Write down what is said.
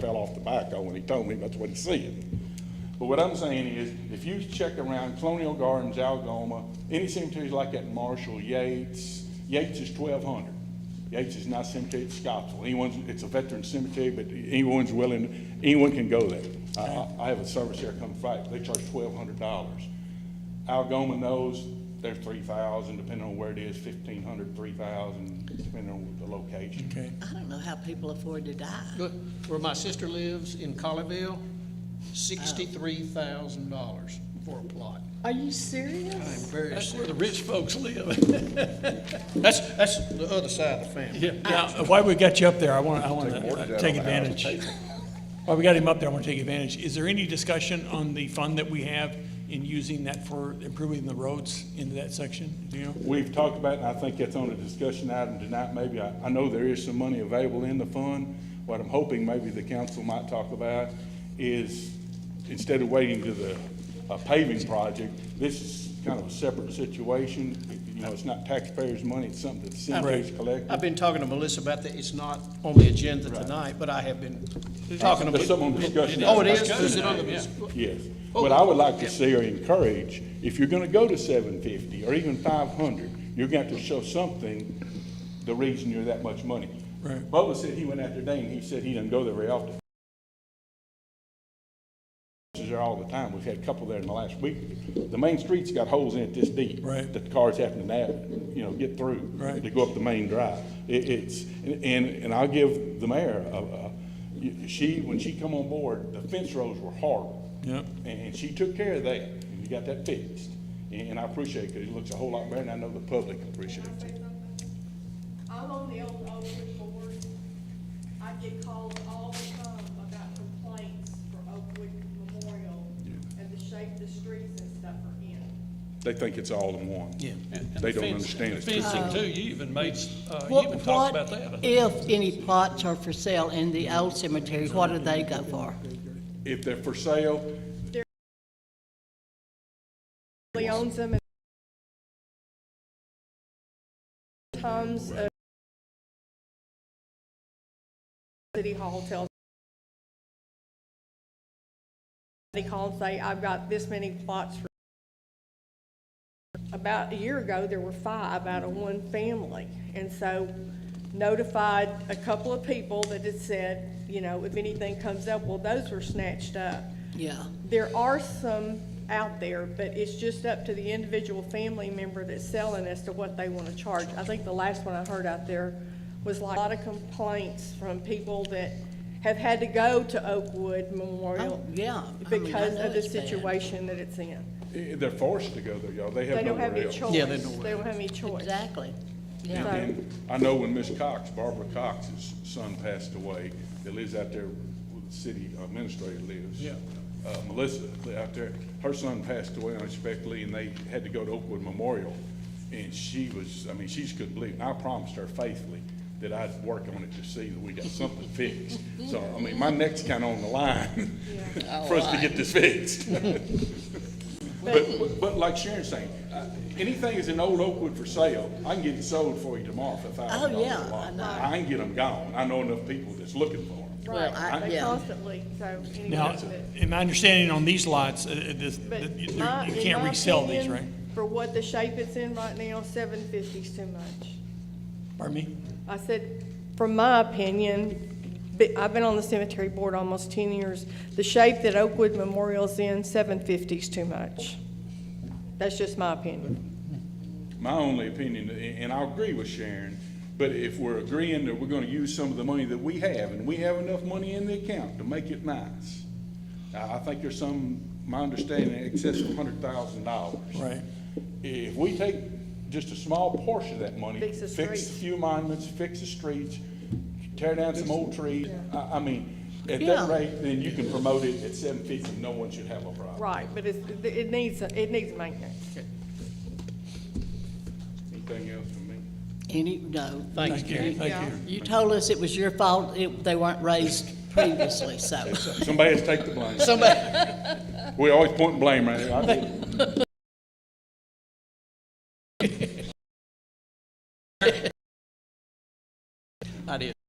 fell off the backhoe when he told me that's what he said. But what I'm saying is, if you check around Colonial Gardens, Algoma, any cemeteries like that, Marshall, Yates, Yates is twelve hundred. Yates is not cemetery, it's Scottsville. Anyone's, it's a veteran cemetery, but anyone's willing, anyone can go there. I- I, I have a service here come Friday, they charge twelve hundred dollars. Algoma knows they're three thousand, depending on where it is, fifteen hundred, three thousand, depending on the location. Okay. I don't know how people afford to die. Look, where my sister lives in Colleyville, sixty-three thousand dollars for a plot. Are you serious? I'm very That's where the rich folks live. That's, that's the other side of the family. Yeah, Now, while we got you up there, I want, I want to take advantage. While we got him up there, I want to take advantage. Is there any discussion on the fund that we have in using that for improving the roads into that section? Do you know? We've talked about, it, and I think that's on a discussion item tonight, maybe, I, I know there is some money available in the fund. What I'm hoping maybe the council might talk about is, instead of waiting to the uh, paving project, this is kind of a separate situation. You know, it's not taxpayers' money, it's something that the cemetery's collecting. I've been talking to Melissa about that. It's not on the agenda tonight, but I have been talking to. There's some on discussion. Oh, it is? Is it on the? Yes. What I would like to see or encourage, if you're gonna go to seven fifty or even five hundred, you're gonna have to show something, the reason you're that much money. Right. Bubba said he went out there today and he said he doesn't go there very often. Is there all the time. We've had a couple there in the last week. The main street's got holes in it this deep. Right. That the cars have to nav, you know, get through. Right. To go up the main drive. It, it's, and, and I'll give the mayor, a- a- y- she, when she come on board, the fence rows were horrible. Yep. And, and she took care of that, and we got that fixed. And, and I appreciate it, because it looks a whole lot better, and I know the public appreciates it. I'm on the old Oakwood board. I get calls all the time about complaints for Oakwood Memorial and the shape the streets and stuff are in. They think it's all in one. Yeah. They don't understand it. Fencing too, you even made, uh, you What- even talked about What that. if any plots are for sale in the old cemetery, what do they go for? If they're for sale, He owns them. and Times, uh, City Hall tells. They call and say, I've got this many plots for. About a year ago, there were five out of one family, and so notified a couple of people that had said, you know, if anything comes up, well, those were snatched up. Yeah, There are some out there, but it's just up to the individual family member that's selling as to what they want to charge. I think the last one I heard out there was like a lot of complaints from people that have had to go to Oakwood Memorial. Oh, yeah. I mean, I Because know of the it's bad. situation that it's in. eh, they're forced to go there, y'all. They They have don't have nowhere any else. choice. Yeah, they don't- They don't have any choice. exactly. And- Yeah, and I know when Miss Cox, Barbara Cox's son passed away, that lives out there where the city administrator lives. Yeah. Uh, Melissa, li- out there, her son passed away unexpectedly and they had to go to Oakwood Memorial. And she was, I mean, she just couldn't believe it. And I promised her faithfully that I'd work on it to see that we got something fixed. So, I mean, my neck's kind of on the line Oh, for us to get this fixed. But, but like Sharon's saying, uh, anything that's in old Oakwood for sale, I can get it sold for you tomorrow for thousand Oh, dollars yeah, a I lot. know. I can get them gone. I know enough people that's looking for them. Well, I- They yeah. constantly, so anyway. Now, but- in my understanding on these lots, uh, uh, this- But that you my- you in can't my resell these, right? opinion, For what the shape it's in right now, seven fifty's too much. Pardon me? I said, from my opinion, be- I've been on the cemetery board almost ten years, the shape that Oakwood Memorial's in, seven fifty's too much. That's just my opinion. My only opinion, a- and I agree with Sharon, but if we're agreeing that we're gonna use some of the money that we have, and we have enough money in the account to make it nice, I, I think there's some, my understanding, in excess of hundred thousand dollars. Right. If we take just a small portion of that money, Fix the fix streets. a few monuments, fix the streets, tear down some old trees, I, I mean, at that Yeah. rate, then you can promote it at seven fifty, no one should have a problem. Right, but it's, it needs, it needs maintenance. Anything else from me? any, no. Thanks, Gary. Thank you. You told us it was your fault, it, they weren't raised previously, so. Somebody has to take the blame. Somebody, We always point and blame right here. I did. I did.